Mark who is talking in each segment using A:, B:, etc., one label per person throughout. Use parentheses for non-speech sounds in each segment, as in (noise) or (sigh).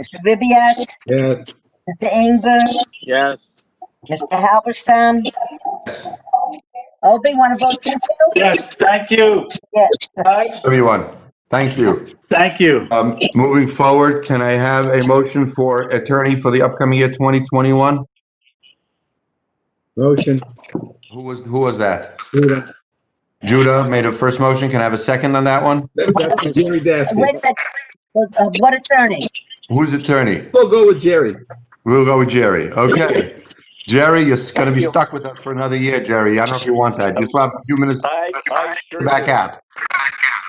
A: Mr. Ribbiat,
B: Yes.
A: Mr. Inger,
C: Yes.
A: Mr. Halberstam. Obi, want to vote yes? too?
C: Yes, thank you.
A: Yes.
C: Bye.
D: Everyone, thank you.
C: Thank you.
D: Um, Moving forward, can I have a motion for attorney for the upcoming year 2021?
B: Motion.
D: Who was, who was that?
B: Rita.
D: Judah made a first motion. Can I have a second on that one?
B: That's Jerry
A: Wait a
B: Dasty.
A: minute. Uh, uh, What attorney?
D: Who's attorney?
B: We'll go with Jerry.
D: We'll go with Jerry. Okay. Jerry, you're going to be stuck with us for another year, Jerry. I don't know if you want that. Just have a few minutes to
E: I, I sure
D: back
E: do.
D: out.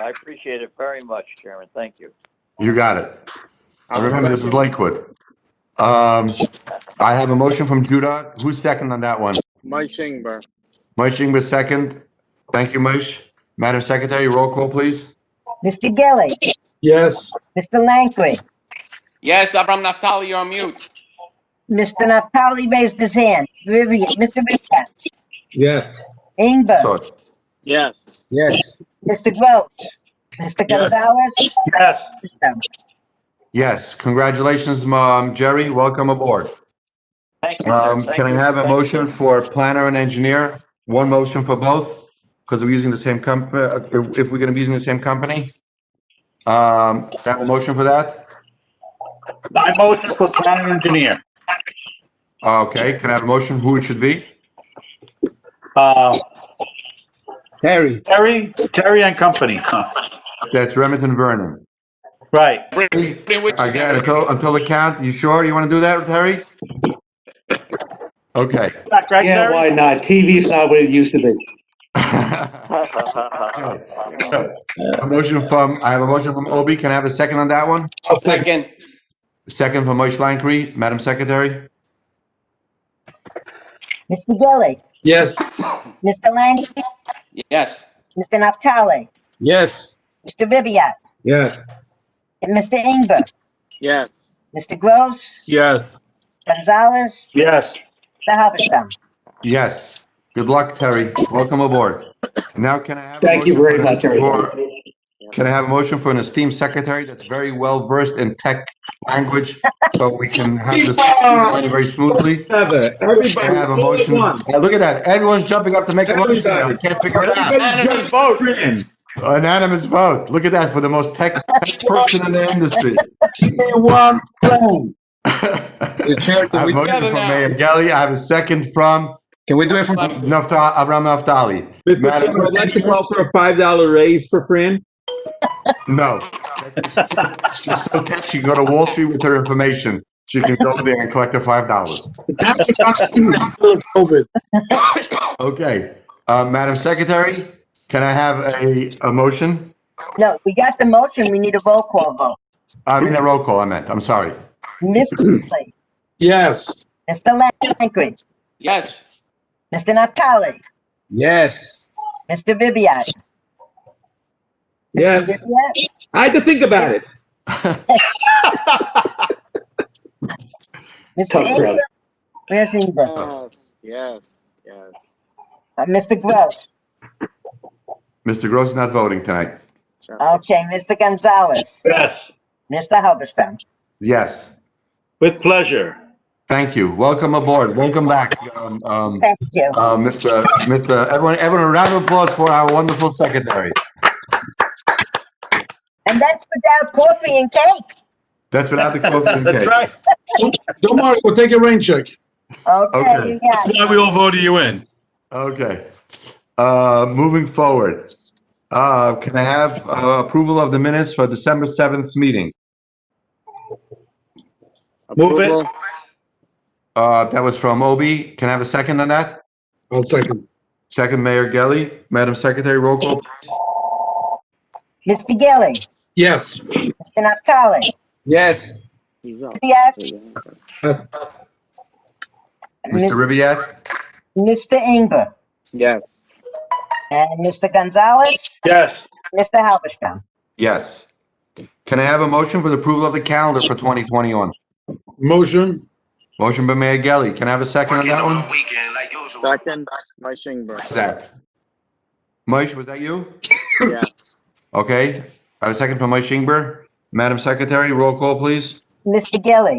E: I appreciate it very much, Chairman. Thank you.
D: You got it. I remember this is Lakewood. Um, I have a motion from Judah. Who's second on that one?
C: Mike Ingber.
D: Moshe Ingber, second. Thank you, Moshe. Madam Secretary, roll call, please.
A: Mr. Gelli,
B: Yes.
A: Mr. Langkry,
F: Yes, Abram Naftali, you're on mute.
A: Mr. Naftali raised his hand. Ribbiat, Mr. Ribbiat,
B: Yes.
A: Inger,
D: So,
C: Yes.
B: Yes.
A: Mr. Gross, Mr. Gonzalez.
C: Yes.
A: Mr.
D: Yes, congratulations, um, Jerry. Welcome aboard.
E: Thank you.
D: Um,
E: sir. Thank
D: Can I
E: you.
D: have a
E: Thank you.
D: motion for planner and engineer? One motion for both? Because we're using the same comp, uh, if if we're going to be using the same company? Um, can I Have a motion for that?
C: My motion for planning engineer.
D: Okay, can I have a motion who it should be?
C: Uh,
B: Terry.
C: Terry, Terry and Company. Huh.
D: That's Remington Vernon.
C: Right.
F: Bring- bring with you,
D: Again,
F: Jerry.
D: until, until the count, you sure you want to do that, Terry? Okay. (laughs)
C: Right,
G: Yeah,
C: Terry?
G: why not? TV's not what it used to be.
D: So, A motion from, I have a motion from Obi. Can I have a second on that one?
F: Second,
D: Second from Moshe Langkry. Madam Secretary?
A: Gelli,
B: Yes.
A: Mr. Langkry,
F: yes. (laughs)
A: Mr. Naftali,
B: Yes.
A: Mr. Ribbiat,
B: Yes.
A: and Mr. Inger,
C: Yes.
A: Mr. Gross,
B: Yes.
A: Gonzalez,
C: Yes.
A: Mr. Halberstam.
D: Yes. Good luck, Terry. Welcome aboard. Now can I have? a
G: Thank you
D: motion
G: very much,
D: for-
G: everybody.
D: Can I have a motion for an esteemed secretary that's very well versed in tech language so we can have this running very smoothly?
B: Heather,
D: Can I
B: everybody,
D: have
B: all
D: a
B: at
D: motion?
B: once.
D: Yeah, Look at that. Everyone's jumping up to make a motion. now. We can't figure it out.
B: Everybody
F: Unanimous
B: just
F: vote.
B: in.
D: Anonymous vote. Look at that for the most tech tech person in the industry.
B: One phone.
D: I
B: chair,
D: have a motion
F: Together
D: from
F: now.
D: Mayor Gelli. I have a second from
B: can we do it
F: from-
D: Nafta, Avram Naftali.
B: Mr.
D: Madam-
B: Chairman, I'd like to call for a five dollar raise for Fran.
D: No. She's so tech, she can go to Wall Street with her information. She can go there and collect her five dollars. Okay, uh, Madam Secretary, can I have a, a motion?
A: No, we got the motion, we need a roll call vote.
D: I mean, a roll call, I meant, I'm sorry.
A: Mr. Lee,
B: Yes.
A: Mr. Langkry,
F: Yes,
A: Mr. Naftali,
B: Yes.
A: Mr. Ribbiat.
B: Yes.
A: Ribbiat,
B: I had to think about it.
A: Mr.
G: Tough crowd.
A: Inger, where's Inger?
C: Yes. Yes. Yes.
A: Uh, Mr. Gross,
D: Mr. Gross is not voting tonight.
A: okay, Mr. Gonzalez,
C: Yes.
A: Mr. Halberstam.
D: Yes,
C: With pleasure.
D: thank you. Welcome aboard, welcome back. Um, um,
A: Thank you.
D: uh, Mr. Mr. Everyone, everyone, a round of applause for our wonderful secretary.
A: And that's without coffee and cake.
D: That's without the
C: (laughs)
D: coffee and
C: That's
D: cake.
C: right.
H: Don't worry, we'll take a rain check.
A: Okay,
D: Okay.
A: you got it.
H: Why we all voted you in.
D: Okay, uh, moving forward. Uh, can I have uh, approval of the minutes for December 7th meeting?
C: Move it.
D: Uh, that was from Obi. Can I have a second on that?
H: I'll second.
D: Second, Mayor Gelli. Madam Secretary, roll call.
A: Mr. Gelli,
H: Yes.
A: Mr. Naftali,
B: Yes.
A: Ribbiat,
D: Mr. Ribbiat?
A: Mr. Inger,
C: Yes.
A: and Mr. Gonzalez,
C: Yes.
A: Mr. Halberstam.
D: Yes. Can I have a motion for the approval of the calendar for 2021?
H: Motion.
D: Motion by Mayor Gelli. Can I have a second on that one?
C: Second, Mike Ingber.
D: Zach. Moish, was that you?
C: Yes.
D: Okay. I have a second from Moish Ingber. Madam Secretary, roll call, please.
A: Mr. Gelli.